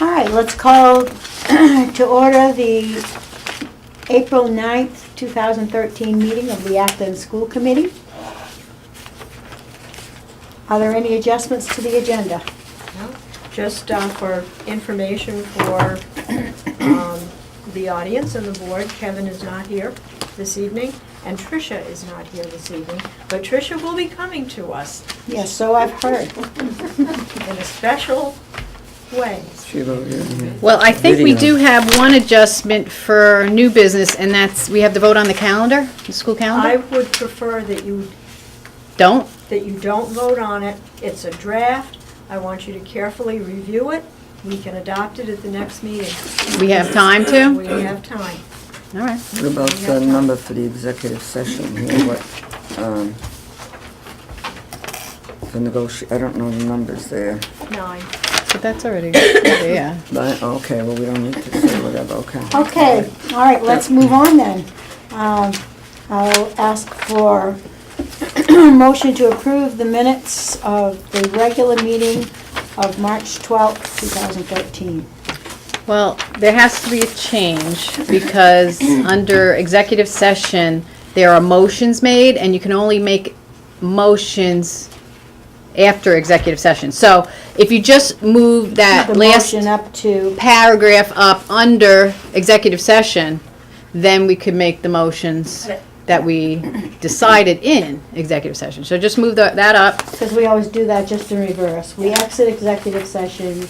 All right, let's call to order the April 9th, 2013 meeting of the Acton School Committee. Are there any adjustments to the agenda? Just uh, for information for um, the audience and the board, Kevin is not here this evening, and Tricia is not here this evening, but Tricia will be coming to us Yes, so I've heard. in a special way. She wrote it. Well, I think we Video. do have one adjustment for new business, and that's, we have to vote on the calendar, the school I calendar? would prefer that you, Don't? that you don't vote on it. It's a draft. I want you to carefully review it. We can adopt it at the next meeting. We have time We to? have time. All right. What about the number for the executive session here, what, um, the negoti, I don't know the numbers there, Nine. But that's already, yeah. but, okay, well, we don't need to say whatever, okay. Okay, all right, let's move on then. Um, I'll ask for motion to approve the minutes of the regular meeting of March 12th, 2013. Well, there has to be a change, because under executive session, there are motions made, and you can only make motions after executive session. So if you just move that last. The motion up to, paragraph up under executive session, then we could make the motions that we decided in executive session. So just move tha- that up. because we always do that just in reverse. We exit executive session,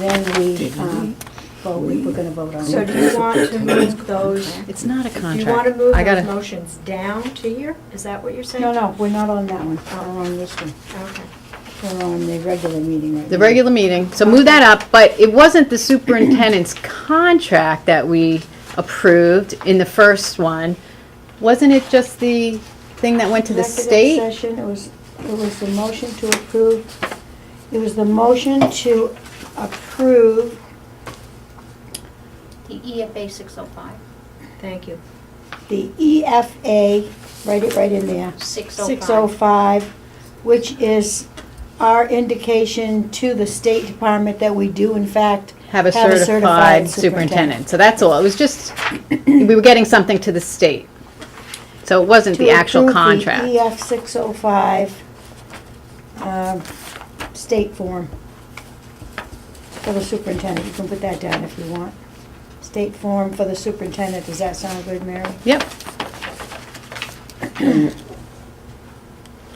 then we, um, vote, we we're gonna vote on So it. do you want to move those It's not a Do contract. you want to move I those gotta, motions down to here? Is that what you're saying? No, no, we're not on that one. We're on this one. Okay. We're on the regular meeting right now. the regular meeting, so move that up, but it wasn't the superintendent's contract that we approved in the first one. Wasn't it just the thing that went to the Executive state? session, it was, it was the motion to approve, it was the motion to approve, The EFA 605, Thank you. the EFA, write it right in there. 605. 605, which is our indication to the State Department that we do in fact Have a Have a certified certified superintendent. So that's all. It was just, we were getting something to the state. So it wasn't the to actual approve the E contract. EF 605 um, state form for the superintendent. You can put that down if you want. State form for the superintendent. Does that sound good, Mary? Yep,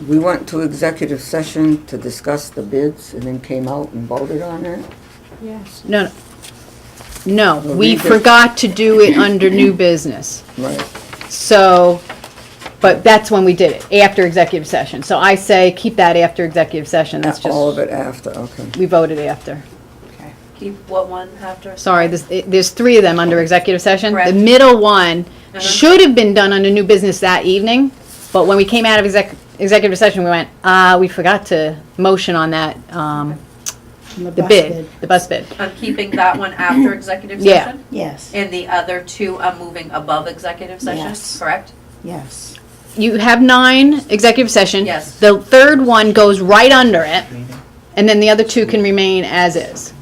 We went to executive session to discuss the bids and then came out and voted on it? Yes. no, no, Well, no. we we did- forgot to do it under new business. Right, So, but that's when we did it, after executive session. So I say, keep that after executive session, that's all of just, it after, okay. we voted after. Keep what one after? Sorry, there's, it- there's three of them under executive session. The Correct. middle one Uh-huh. should have been done under new business that evening, but when we came out of exec, executive session, we went, ah, we forgot to motion on that, um, From the bus bid, the bus bid. I'm keeping that one after executive Yeah. session? Yes, And the other two I'm moving above executive Yes. session, correct? yes. you have nine executive session. Yes. The third one goes right under it, and then the other two can remain as is.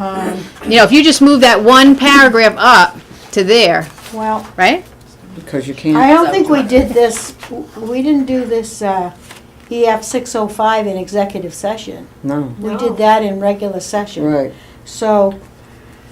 Um, You know, if you just move that one paragraph up to there, Well, right? Because you I can't, don't think we did this, we didn't do this uh, EF 605 in executive session. no, We No. did that in regular session. right, So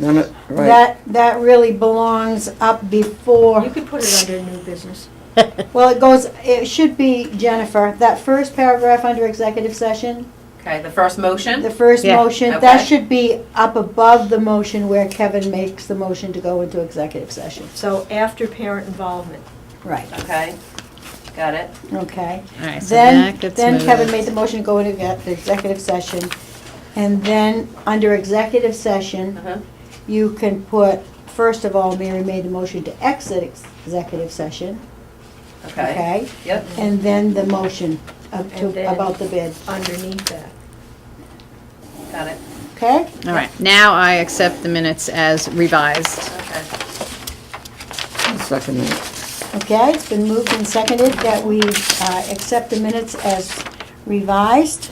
none of, right. that, that really belongs up before. You could put it under new business. Well, it goes, it should be, Jennifer, that first paragraph under executive session, Okay, the first the motion, first Yeah. motion, that Okay. should be up above the motion where Kevin makes the motion to go into executive session. So after parent involvement. Right, okay, got it? okay. All right, so Then, that gets then Kevin moved. made the motion to go into ex- executive session. And then, under executive session, Uh-huh. you can put, first of all, Mary made the motion to exit ex- executive session, Okay, okay? yep, And then the motion up And to, then- about the bid, Underneath that. got it, okay? All right, now I accept the minutes as revised. okay. Second that, Okay, it's been moved and seconded that we uh, accept the minutes as revised.